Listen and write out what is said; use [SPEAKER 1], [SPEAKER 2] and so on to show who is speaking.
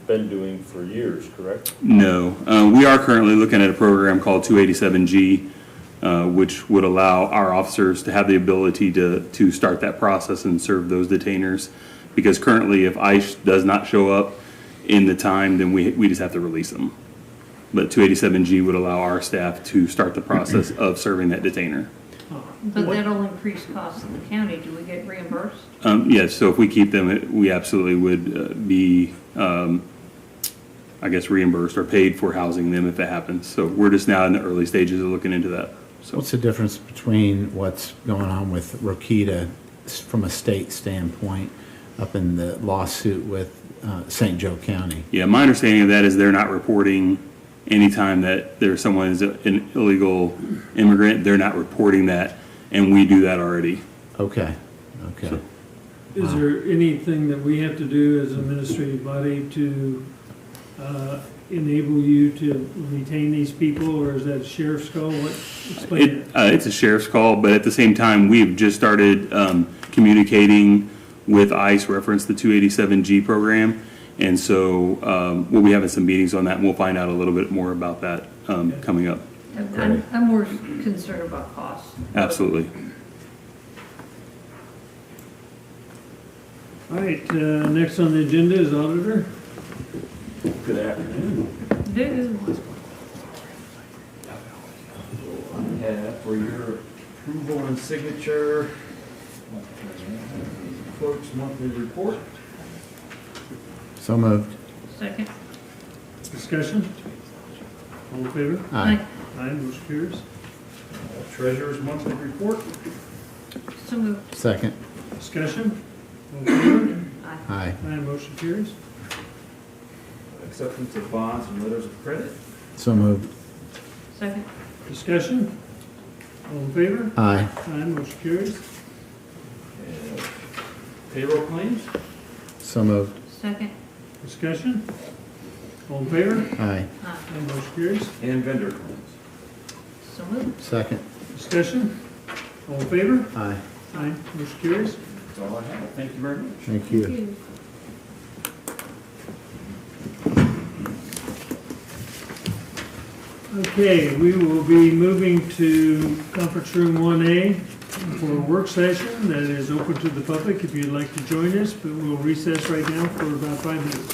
[SPEAKER 1] been doing for years, correct?
[SPEAKER 2] No, Uh, we are currently looking at a program called 287G, uh, which would allow our officers to have the ability to, to start that process and serve those detainers. Because currently, if ICE does not show up in the time, then we, we just have to release them. But 287G would allow our staff to start the process of serving that detainer.
[SPEAKER 3] But that'll increase costs to the county. Do we get reimbursed?
[SPEAKER 2] Um, Yes, so if we keep them, it- we absolutely would uh, be, um, I guess, reimbursed or paid for housing them if it happens. So we're just now in the early stages of looking into that. So
[SPEAKER 4] What's the difference between what's going on with Rokita s- from a state standpoint up in the lawsuit with uh, St. Joe County?
[SPEAKER 2] Yeah, my understanding of that is they're not reporting anytime that there's someone is an illegal immigrant, they're not reporting that, and we do that already.
[SPEAKER 4] Okay, okay.
[SPEAKER 5] Is there anything that we have to do as an administrative body to uh, enable you to retain these people, or is that sheriff's call? What, explain
[SPEAKER 2] It,
[SPEAKER 5] it.
[SPEAKER 2] uh, it's a sheriff's call, but at the same time, we've just started, um, communicating with ICE, reference the two eighty-seven G program. And so, um, we'll be having some meetings on that and we'll find out a little bit more about that, um, coming up.
[SPEAKER 3] I'm- I'm, I'm more concerned about costs.
[SPEAKER 2] Absolutely.
[SPEAKER 5] All right, uh, next on the agenda is auditor.
[SPEAKER 1] Good afternoon.
[SPEAKER 3] There is one.
[SPEAKER 6] Uh, For your approval and signature, clerk's monthly report.
[SPEAKER 4] So moved.
[SPEAKER 3] Second.
[SPEAKER 5] Discussion? All in favor?
[SPEAKER 4] Aye.
[SPEAKER 5] Aye, motion carries.
[SPEAKER 6] Treasurer's monthly report.
[SPEAKER 3] Aye. So moved.
[SPEAKER 4] Second.
[SPEAKER 5] Discussion? All in favor?
[SPEAKER 3] Aye.
[SPEAKER 4] Aye.
[SPEAKER 5] Aye, motion carries.
[SPEAKER 6] Acceptance of bonds and letters of credit.
[SPEAKER 4] So moved.
[SPEAKER 3] Second.
[SPEAKER 5] Discussion? All in favor?
[SPEAKER 4] Aye.
[SPEAKER 5] Aye, motion carries.
[SPEAKER 6] Uh, Payroll claims.
[SPEAKER 4] So moved.
[SPEAKER 3] Second.
[SPEAKER 5] Discussion? All in favor?
[SPEAKER 4] Aye.
[SPEAKER 3] Aye.
[SPEAKER 5] Aye, motion carries.
[SPEAKER 6] And vendor claims.
[SPEAKER 3] So moved.
[SPEAKER 4] Second.
[SPEAKER 5] Discussion? All in favor?
[SPEAKER 4] Aye.
[SPEAKER 5] Aye, motion carries.
[SPEAKER 6] That's all I have. Thank you very much.
[SPEAKER 4] Thank you.
[SPEAKER 3] Two.
[SPEAKER 5] Okay, we will be moving to conference room 1A for a work session that is open to the public if you'd like to join us, but we'll recess right now for about five minutes.